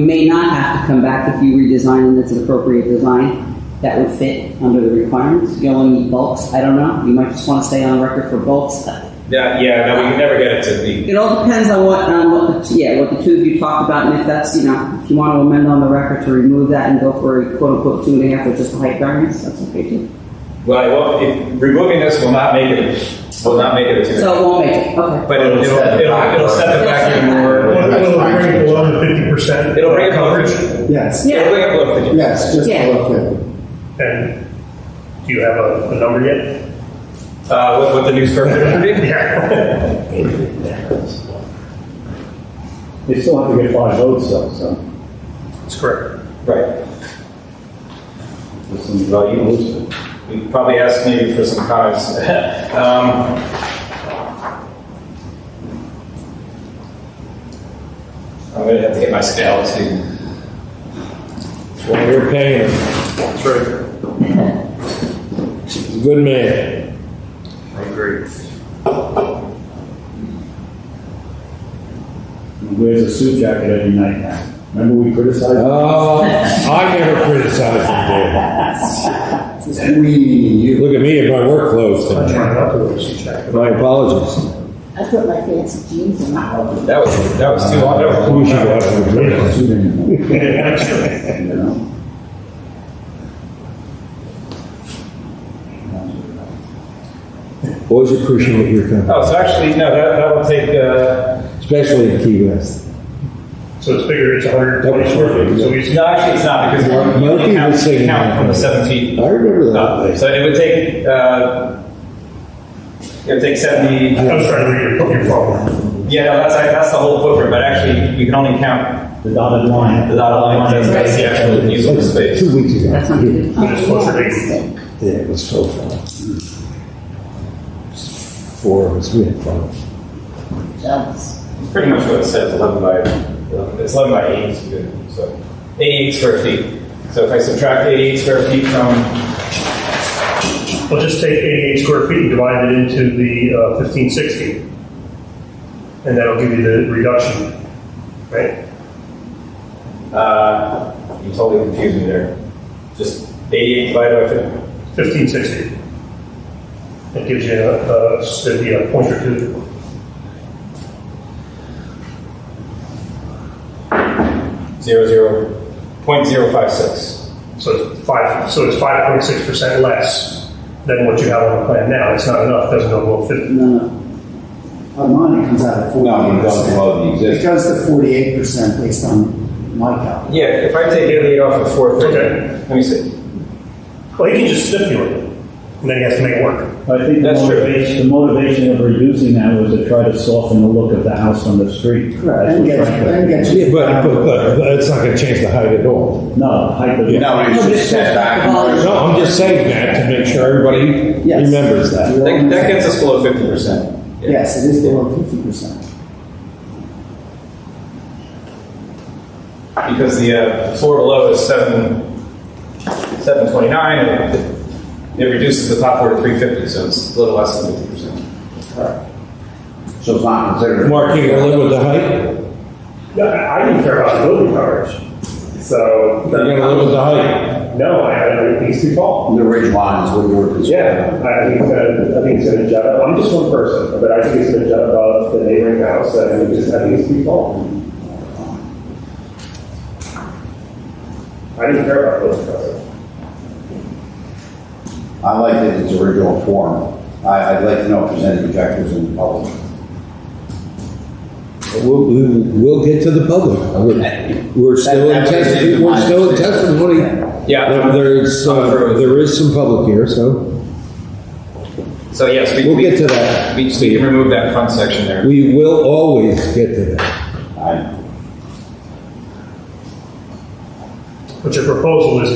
You may not have to come back if you redesign and it's an appropriate design that would fit under the requirements. You only need bulks, I don't know, you might just want to stay on record for bulks. Yeah, yeah, no, we can never get it to be. It all depends on what, on what, the- yeah, what the two of you talked about, and if that's, you know, if you want to amend on the record to remove that and go for a quote-unquote two and a half or just a height variance, that's okay too. Well, it won't- if, removing this will not make it, will not make it a two. So it won't make it, okay. But it'll, it'll, it'll, it'll set it back even more. It'll That's fine. bring it below the fifty percent. It'll bring it below fifty. Yes, Yeah. It'll bring it below fifty. yes, just Yeah. below fifty. And do you have a, a number yet? Uh, with, with the new square footage would be? Yeah. They still have to get five votes though, so. That's correct. Right. This is about you losing. We probably asked maybe for some comments. Um, I'm gonna have to get my scale too. Well, you're paying him. That's right. He's a good man. I agree. He wears a suit jacket every night now. Remember we criticized? Oh, I never criticize him, Dave. We meaning you. Look at me in my work clothes I'm tonight. trying not to lose you, Jack. My apologies. I put my fancy jeans in my hole. That was, that was too long. That We should was- have a Wear drink. a suit anymore, Absolutely. you know? Always appreciate your company, Oh, so actually, no, that, that will take, uh, especially in Key West. So it's bigger, it's hundred and twenty square feet, so we no, actually, it's not, because we're, we Murphy only count, was saying count that. from the seven feet I remember that up. place. So it would take, uh, it would take seventy, I was trying to read your, your phone. yeah, no, that's, that's the whole footprint, but actually, we can only count The dotted the line. dotted line, that's, that's the actual It was usable like space. Two weeks ago. That's not good. I'm just supposed to read. Yeah, it was so fun. Four of us, we had fun. Jealous. It's pretty much what it says, eleven by, it's eleven by eight, is good, so, eighty-eight square feet. So if I subtract eighty-eight square feet from, Well, just take eighty-eight square feet and divide it into the uh, fifteen sixty. And that'll give you the reduction, right? uh, you totally confused me there. Just eighty-eight divided by fifty. Fifteen sixty. It gives you a, a, it'd be a point or two. Zero zero point zero five six. So it's five, so it's five point six percent less than what you have on the plan now. It's not enough, doesn't go below fifty. No, no. On mine, it comes out at No, forty-eight it goes percent. above It the existing. goes to forty-eight percent based on my calculation. Yeah, if I take eighty-eight off of four thirty, Okay. let me see. Well, he can just stipulate it, and then he has to make it work. I think the That's true. motivation, the motivation of reducing that was to try to soften the look of the house on the street. Correct, That's and what get, Frank- and get Yeah, you. but, but, but, but it's not gonna change the height at all. No, height of the. No, it's just set back. No, I'm just saying that to make sure everybody Yes. remembers that. You're That, almost- that gets us below fifty percent. Yes, it is below fifty percent. Because the uh, floor below is seven, seven twenty-nine, and it- it reduces the top floor to three fifty, so it's a little less than fifty percent. So it's not considered. Mark, you gonna live with the height? No, I I didn't care about the building coverage, so. You're gonna live with the height? No, I, I think he's too tall. The ridge lines would work as Yeah, I think it's gonna, I think it's gonna jut up, I'm just one person, but I think it's gonna jut above the neighboring house, and I think it's, I think it's too tall. I didn't care about those houses. I like it in its original form. I, I'd like to know if there's any objectors in the public. We'll, we'll we'll get to the public. We're- We're still in That- that was testimony, we're my still in decision. testimony. Yeah. There- There's, uh, there is some public here, so So yes, we. we'll we- get to that. We, we can remove that front section there. We will always get to that. I, But your proposal is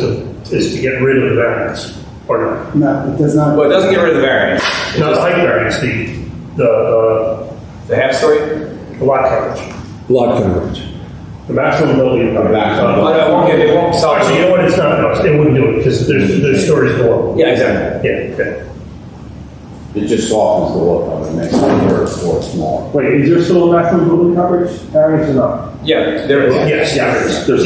to, is to get rid of the variance, or not? No, it does not. Well, it doesn't get rid of the variance, Not the height variance, the, the, uh, the half story, the lot coverage, Lot coverage. the maximum building coverage. The maximum. but it won't get, it won't All right, so you solve. know what, it's not, no, it wouldn't do it, because there's, there's stories below. Yeah, exactly. Yeah, okay. It just softens the look of it, makes it look more smaller. Wait, is there still a maximum building coverage variance or not? Yeah, there it is. Yes, yeah, there is. There's